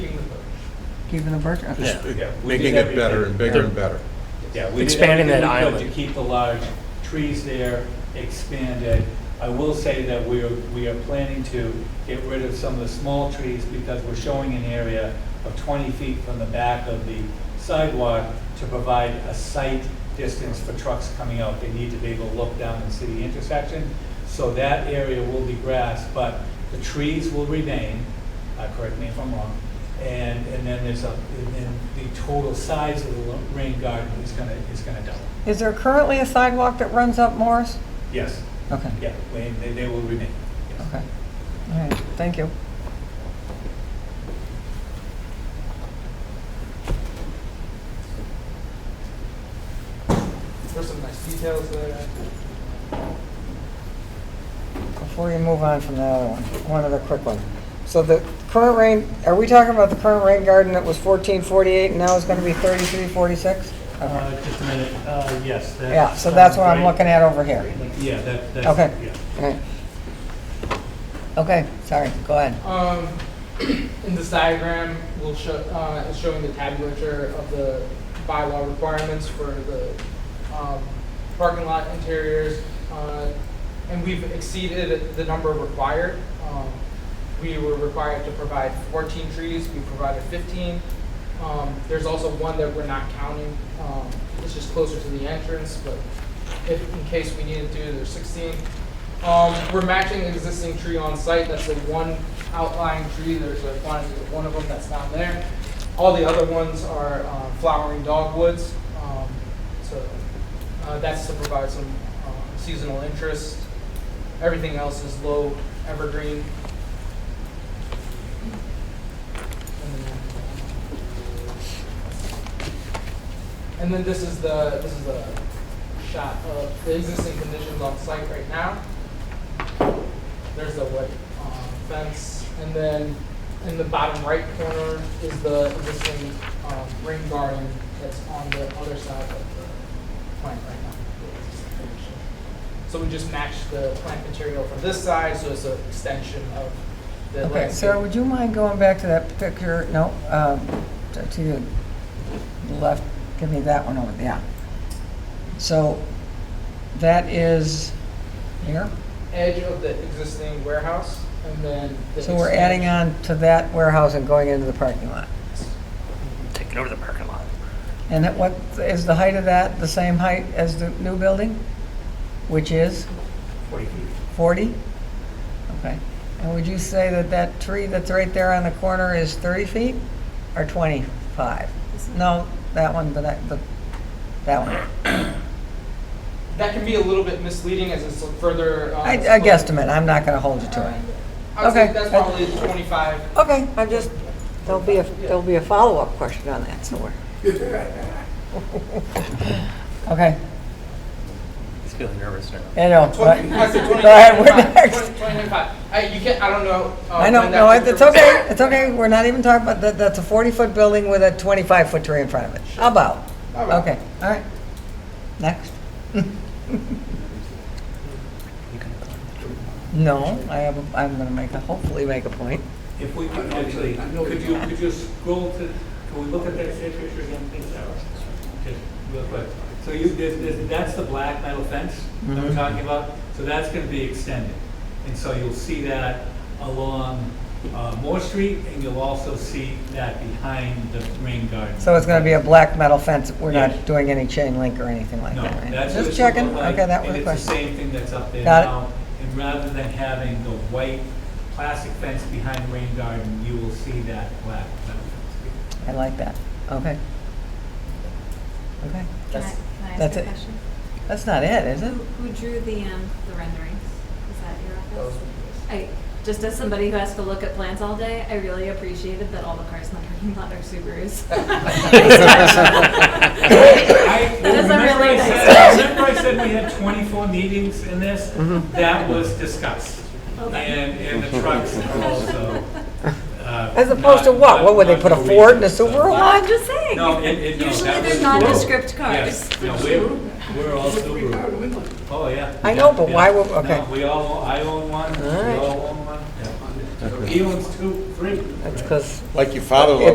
Keeping the bird, okay. Just Yeah, we making did it better everything. and bigger and better. Yeah, we did Expanding that everything we could island. To keep the large trees there, expand it. I will say that we are, we are planning to get rid of some of the small trees because we're showing an area of 20 feet from the back of the sidewalk to provide a sight distance for trucks coming out. They need to be able to look down and see the intersection. So that area will be grass, but the trees will remain, uh, correct me if I'm wrong. And, and then there's a, and then the total size of the lo- rain garden is gonna, is gonna double. Is there currently a sidewalk that runs up Morris? Yes. Okay, Yeah, we- they, they will remain. yes. okay. All right, thank you. There's some nice details there. Before you move on from the other one, one other quick one. So the current rain, are we talking about the current rain garden that was fourteen forty-eight and now it's gonna be thirty-three forty-six? Uh, just a minute, uh, yes. Yeah, so that's what I'm looking at over here. Yeah, that, that's. Okay. yeah. All right. Okay, sorry, go ahead. Um, in this diagram, we'll show, uh, is showing the tabulature of the bylaw requirements for the, um, parking lot interiors. uh, And we've exceeded the number required. Um, We were required to provide fourteen trees, we provided fifteen. Um, there's also one that we're not counting, um, it's just closer to the entrance, but if, in case we needed to, there's sixteen. Um, we're matching existing tree on site, that's the one outlying tree, there's a quantity of one of them that's not there. All the other ones are, uh, flowering dogwoods, um, so, uh, that's to provide some, uh, seasonal interest. Everything else is low evergreen. And then this is the, this is the shot of the existing conditions on site right now. There's the wood um, fence, and then in the bottom right corner is the existing um, rain garden that's on the other side of the plant right now. the existing condition. So we just matched the plant material from this side, so it's an extension of the Okay, landscape. Sarah, would you mind going back to that particular, no, um, to- to your left, give me that one over, yeah. So that is here, edge of the existing warehouse, and then. the so we're adding expansion. on to that warehouse and going into the parking lot. taking over the parking lot. And that what, is the height of that the same height as the new building? Which is? Forty feet. 40? Okay. And would you say that that tree that's right there on the corner is 30 feet or 25? No, that one, the, ne- the- that one. That can be a little bit misleading as it's further. uh, I I split. guesstimate, I'm not going to hold you to I would Okay. say that's probably twenty-five. it. Okay, I'm just, there'll be, a there'll be a follow-up question on that somewhere. Okay, He's feeling nervous now. I know. but- Twenty, I said Go ahead, we're 25, next. 20, 25. I, you can't, I don't know. uh, I know, Oh, when that no, picture it's was- okay, it's okay, we're not even talking about, that, that's a 40-foot building with a 25-foot tree in front of it. How about? How about? Okay, all right. Next. No, I have, a- I'm gonna make, a hopefully make a point. If we could actually, could you, could you scroll to, can we look at that same picture again, please, Sarah? Just real quick. So you, there's, there's, that's the black metal fence that we're Mhm. talking about, so that's gonna be extended. And so you'll see that along, uh, Moore Street, and you'll also see that behind the rain garden. So it's gonna be a black metal fence, we're Yes. not doing any chain link or anything like No, that, right? that's what Just it should checking, look like. okay, that was And a it's the question. same thing that's up there Got it. now. And rather than having the white plastic fence behind rain garden, you will see that black metal fence. I like that, okay. Okay, Can I, that's, can I that's ask a it. Hmm? question? that's not it, is it? Who who drew the, um, the renderings? Is that your Those office? were yours. I, just as somebody who has to look at plants all day, I really appreciated that all the cars in the parking lot are Subarus. I- That is a remember I really said- nice Remember I said we had twenty-four meetings in this? Mm-hmm. That was discussed. And, and the trucks are also. uh, As opposed to not- what? What would they not put a for Ford and a reasons, so- Subaru? Well, I'm just saying. No, it, it, no, Usually that they're was- nondescript cars. Yes, no, we're, we're all Subaru. Oh, yeah. I know, but Yeah. why would- okay. No, we all, own- I own one, we All right. all own one. yeah. He owns two, three. That's because Like your father-in-law